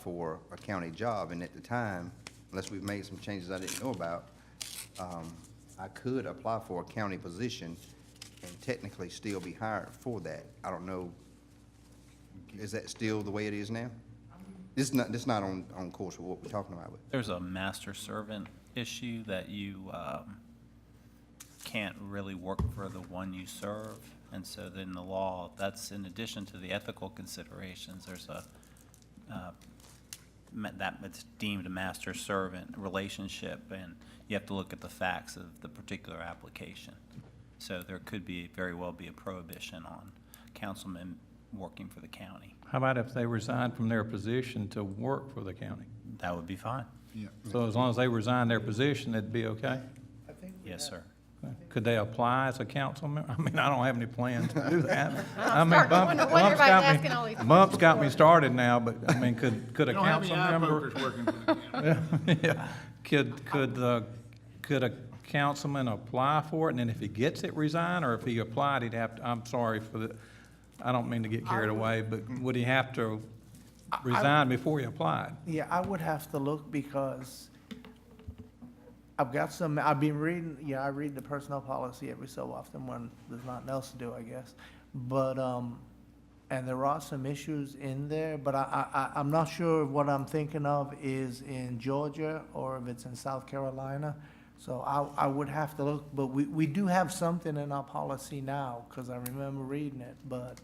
for a county job, and at the time, unless we've made some changes I didn't know about, um, I could apply for a county position and technically still be hired for that. I don't know, is that still the way it is now? This is not, this is not on, on course with what we're talking about. but- There's a master servant issue that you um, can't really work for the one you serve. And so then the law, that's in addition to the ethical considerations, there's a, uh, ma- that it's deemed a master servant relationship. And you have to look at the facts of the particular application. So there could be, very well be a prohibition on councilmen working for the county. How about if they resigned from their position to work for the county? That would be fine. Yeah, So as long as they resigned their position, it'd be okay? Yes, sir. Could they apply as a council member? I mean, I don't have any plans to do that. I mean, starting to Bump- wonder what Bump's everybody's got me- asking all these Bump's got me started now, but I mean, could, could a You don't have any council eye member? pokers working for the county. Yeah. Could, could, uh, could a councilman apply for it and then if he gets it, resign? Or if he applied, he'd have to, I'm sorry for the, I don't mean to get carried away, but Mm-hmm. would he have to resign before he applied? Yeah, I would have to look because I've got some, I've been reading, yeah, I read the personnel policy every so often when there's nothing else to do, I guess. But, um, and there are some issues in there, but I, I, I- I'm not sure if what I'm thinking of is in Georgia or if it's in South Carolina. So I, I would have to look, but we, we do have something in our policy now, because I remember reading it, but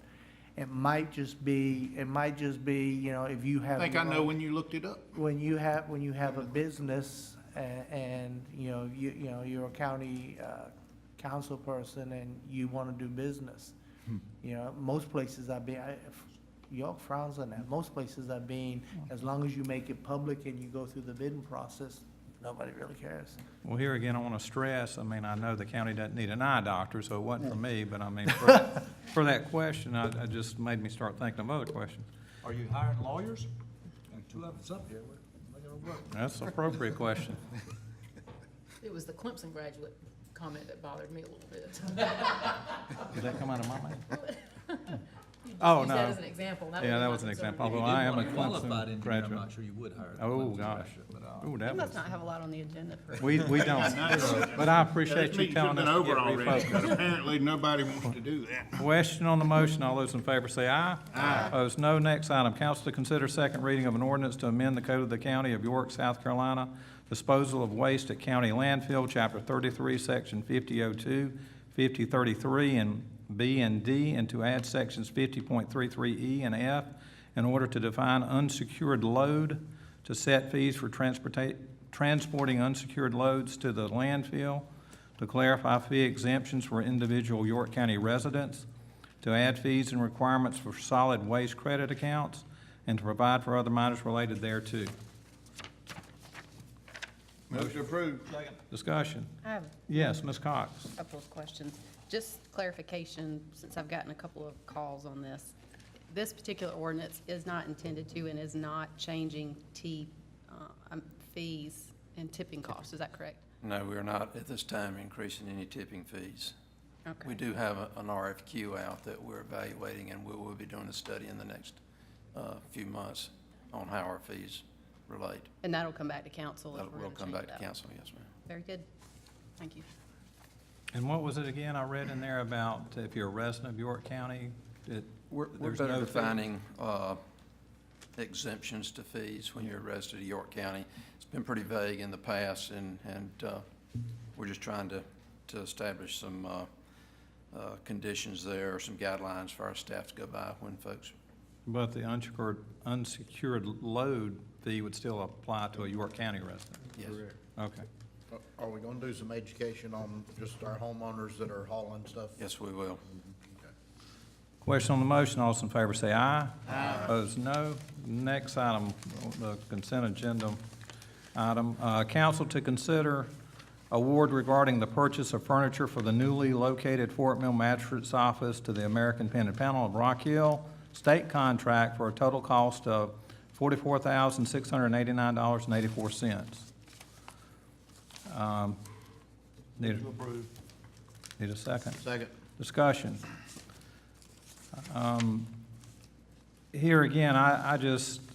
it might just be, it might just be, you know, if you I have. think I your know own- when you looked it up. when you have, when you have a business a- and, you know, you, you know, you're a county uh, council person and you want to do business. You know, most places I've been, I- York frowns on that. Most places I've been, as long as you make it public and you go through the bidding process, nobody really cares. Well, here again, I want to stress, I mean, I know the county doesn't need an eye doctor, so it wasn't for me, but I mean, for, for that question, I, I just made me start thinking of other questions. Are you hiring lawyers? Got Two of us up here, we're making it work. That's an appropriate question. It was the Clemson graduate comment that bothered me a little bit. Did that come out of my mouth? Oh, Use that no. as an example. Yeah, was that my was an concern. example. If you Although I did am a want a qualified Clemson engineer, I'm graduate. not sure you would hire. a Oh, Clemson gosh. graduate, but, uh, Ooh, that was, Let's not have a lot on the agenda for. we, we don't, but I appreciate This you meeting telling us should've been to over get already, refocused. but apparently nobody wants to do that. Question on the motion, all those in favor say aye. Aye. Opposed, no. Next item, council to consider second reading of an ordinance to amend the code of the county of York, South Carolina, disposal of waste at county landfill, chapter thirty-three, section 5002, 5033, and B and D, and to add sections fifty point three-three E and F in order to define unsecured load, to set fees for transporta- transporting unsecured loads to the landfill, to clarify fee exemptions for individual York County residents, to add fees and requirements for solid waste credit accounts, and to provide for other matters related thereto. Move to approve. Discussion. I have Yes, Ms. Cox. a couple of questions. Just clarification, since I've gotten a couple of calls on this. This particular ordinance is not intended to and is not changing T, uh, um, fees and tipping costs, is that correct? No, we are not at this time increasing any tipping fees. Okay. We do have a- an RFQ out that we're evaluating, and we will be doing a study in the next uh, few months on how our fees relate. And that'll come back to council if That we're will going to come change back it to up. council, yes, ma'am. Very good. Thank you. And what was it again I read in there about if you're a resident of York County, that We're we're there's better no fee? defining uh, exemptions to fees when you're a resident of York County. It's been pretty vague in the past, and, and uh, we're just trying to, to establish some uh, uh, conditions there, or some guidelines for our staff to go by when folks But the unsecured, unsecured load fee would still apply to a York County resident? Yes. Okay. Are we gonna do some education on just our homeowners that are hauling stuff? Yes, we will. Question on the motion, all those in favor say aye. Aye. Opposed, no. Next item, the consent agenda item, uh, council to consider award regarding the purchase of furniture for the newly located Fort Mill Magistrate's Office to the American Pen and Panel of Rock Hill, state contract for a total cost of forty-four thousand, six hundred and eighty-nine dollars and eighty-four cents. Um, Need a- Need a second? Second. Discussion. Um, Here again, I, I just,